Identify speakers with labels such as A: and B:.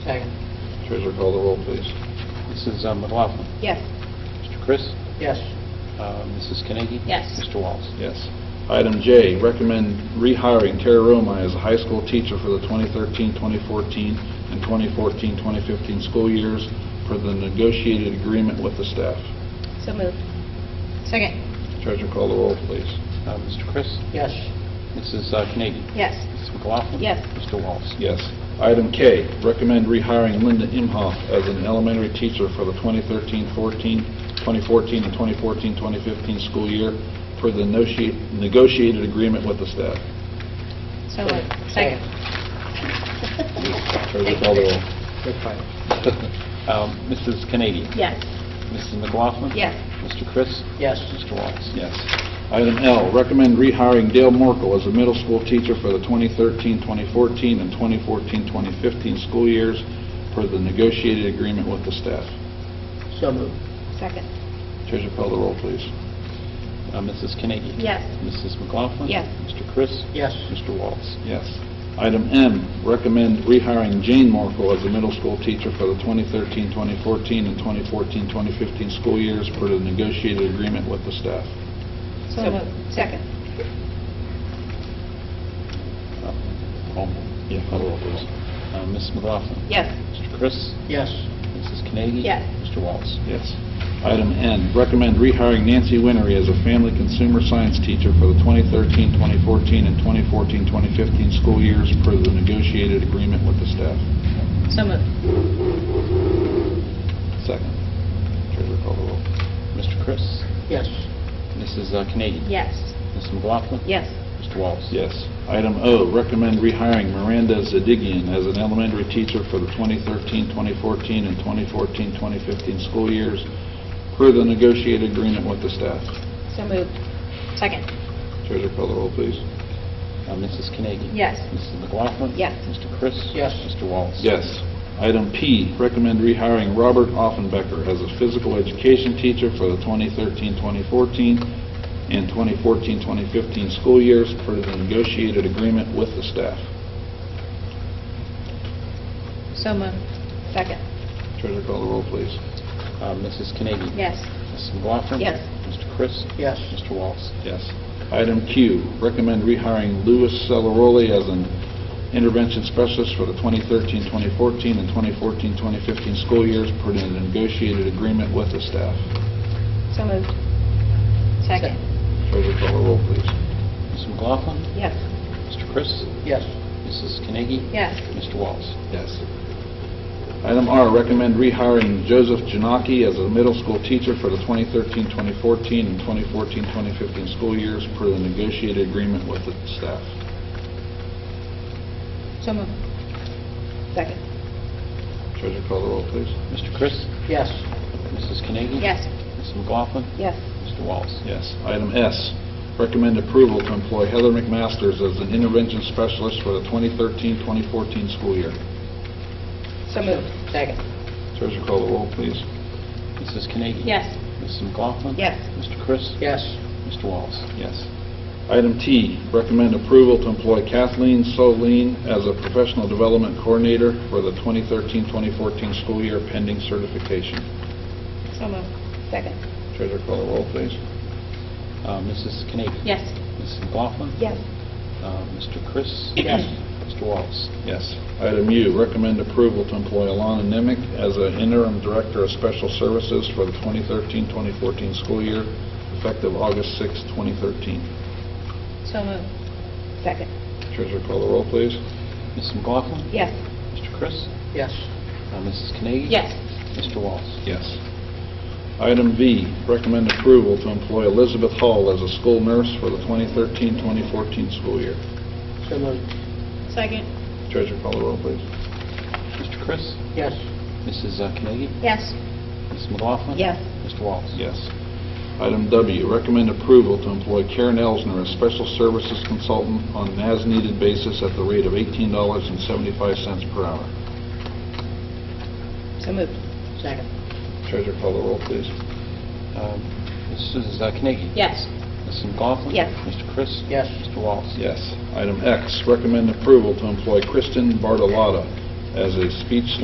A: Treasurer, call the roll, please.
B: Mrs. McLaughlin.
C: Yes.
B: Mr. um, Chris.
D: Yes.
B: Uh, Mrs. Carnegie.
C: Yes.
B: Mr. Wallace.
A: Yes. Item J, recommend rehiring Tara Roma as a high school teacher for the 2013-2014 and 2014-2015 school years for the negotiated agreement with the staff.
C: So moved. Second.
A: Treasurer, call the roll, please.
B: Uh, Mr. Chris.
D: Yes.
B: Mrs. uh, Carnegie.
C: Yes.
B: Mrs. McLaughlin.
C: Yes.
B: Mr. Wallace.
A: Yes. Item K, recommend rehiring Linda Imhoff as an elementary teacher for the 2013-14, 2014 and 2014-2015 school year for the negotia- negotiated agreement with the staff.
C: So moved.
D: Second.
A: Treasurer, call the roll.
B: Good fight. Um, Mrs. Carnegie.
C: Yes.
B: Mrs. McLaughlin.
C: Yes.
B: Mr. Chris.
D: Yes.
B: Mr. Wallace.
A: Yes. Item L, recommend rehiring Dale Morkel as a middle school teacher for the 2013-2014 and 2014-2015 school years per the negotiated agreement with the staff.
D: So moved.
C: Second.
A: Treasurer, call the roll, please.
B: Uh, Mrs. Carnegie.
C: Yes.
B: Mrs. McLaughlin.
C: Yes.
B: Mr. Chris.
D: Yes.
B: Mr. Wallace.
A: Yes. Item M, recommend rehiring Jane Morkel as a middle school teacher for the 2013-2014 and 2014-2015 school years per the negotiated agreement with the staff.
C: So moved. Second.
B: Uh, All in.
A: Yeah, call the roll, please.
B: Uh, Mrs. McLaughlin.
C: Yes.
B: Mr. Chris.
D: Yes.
B: Mrs. Carnegie.
C: Yes.
B: Mr. Wallace.
A: Yes. Item N, recommend rehiring Nancy Winery as a family consumer science teacher for the 2013, 2014, and 2014, 2015 school years per the negotiated agreement with the staff.
C: So moved.
A: Second. Treasurer call the roll.
B: Mr. Chris.
D: Yes.
B: Mrs. uh, Carnegie.
C: Yes.
B: Mrs. McLaughlin.
C: Yes.
B: Mr. Wallace.
A: Yes. Item O, recommend rehiring Miranda Zadigian as an elementary teacher for the 2013, 2014, and 2014, 2015 school years per the negotiated agreement with the staff.
C: So moved. Second.
A: Treasurer call the roll, please.
B: Uh, Mrs. Carnegie.
C: Yes.
B: Mrs. McLaughlin.
C: Yes.
B: Mr. Chris.
D: Yes.
B: Mr. Wallace.
A: Yes. Item P, recommend rehiring Robert Offenbecker as a physical education teacher for the 2013-2014 and 2014-2015 school years per the negotiated agreement with the staff.
C: So moved. Second.
A: Treasurer call the roll, please.
B: Uh, Mrs. Carnegie.
C: Yes.
B: Mrs. McLaughlin.
C: Yes.
B: Mr. Chris.
D: Yes.
B: Mr. Wallace.
A: Yes. Item Q, recommend rehiring Louis Celeroli as an intervention specialist for the 2013-2014 and 2014-2015 school years per the negotiated agreement with the staff.
C: So moved. Second.
A: Treasurer call the roll, please.
B: Mrs. McLaughlin.
C: Yes.
B: Mr. Chris.
D: Yes.
B: Mrs. Carnegie.
C: Yes.
B: Mr. Wallace.
A: Yes. Item R, recommend rehiring Joseph Janaki as a middle school teacher for the 2013-2014 and 2014-2015 school years per the negotiated agreement with the staff.
C: So moved. Second.
A: Treasurer call the roll, please.
B: Mr. Chris.
D: Yes.
B: Mrs. Carnegie.
C: Yes.
B: Mrs. McLaughlin.
C: Yes.
B: Mr. Wallace.
A: Yes. Item S, recommend approval to employ Heather McMasters as an intervention specialist for the 2013-2014 school year.
C: So moved.
D: Second.
A: Treasurer call the roll, please.
B: Mrs. Carnegie.
C: Yes.
B: Mrs. McLaughlin.
C: Yes.
B: Mr. Chris.
D: Yes.
B: Mr. Wallace.
A: Yes. Item T, recommend approval to employ Kathleen Soline as a professional development coordinator for the 2013-2014 school year pending certification.
C: So moved. Second.
A: Treasurer call the roll, please.
B: Uh, Mrs. Carnegie.
C: Yes.
B: Mrs. McLaughlin.
C: Yes.
B: Uh, Mr. Chris.
D: Yes.
B: Mr. Wallace.
A: Yes. Item U, recommend approval to employ Alana Nemick as an interim director of special services for the 2013-2014 school year effective August 6, 2013.
C: So moved. Second.
A: Treasurer call the roll, please.
B: Mrs. McLaughlin.
C: Yes.
B: Mr. Chris.
D: Yes.
B: Uh, Mrs. Carnegie.
C: Yes.
B: Mr. Wallace.
A: Yes. Item V, recommend approval to employ Elizabeth Hall as a school nurse for the 2013-2014 school year.
D: So moved.
C: Second.
A: Treasurer call the roll, please.
B: Mr. Chris.
D: Yes.
B: Mrs. uh, Carnegie.
C: Yes.
B: Mrs. McLaughlin.
C: Yes.
B: Mr. Wallace.
A: Yes. Item W, recommend approval to employ Karen Elsner as special services consultant on an as-needed basis at the rate of $18.75 per hour.
C: So moved.
D: Second.
A: Treasurer call the roll, please.
B: Um, Mrs. uh, Carnegie.
C: Yes.
B: Mrs. McLaughlin.
C: Yes.
B: Mr. Chris.
D: Yes.
B: Mr. Wallace.
A: Yes. Item X, recommend approval to employ Kristen Bartolotta as a speech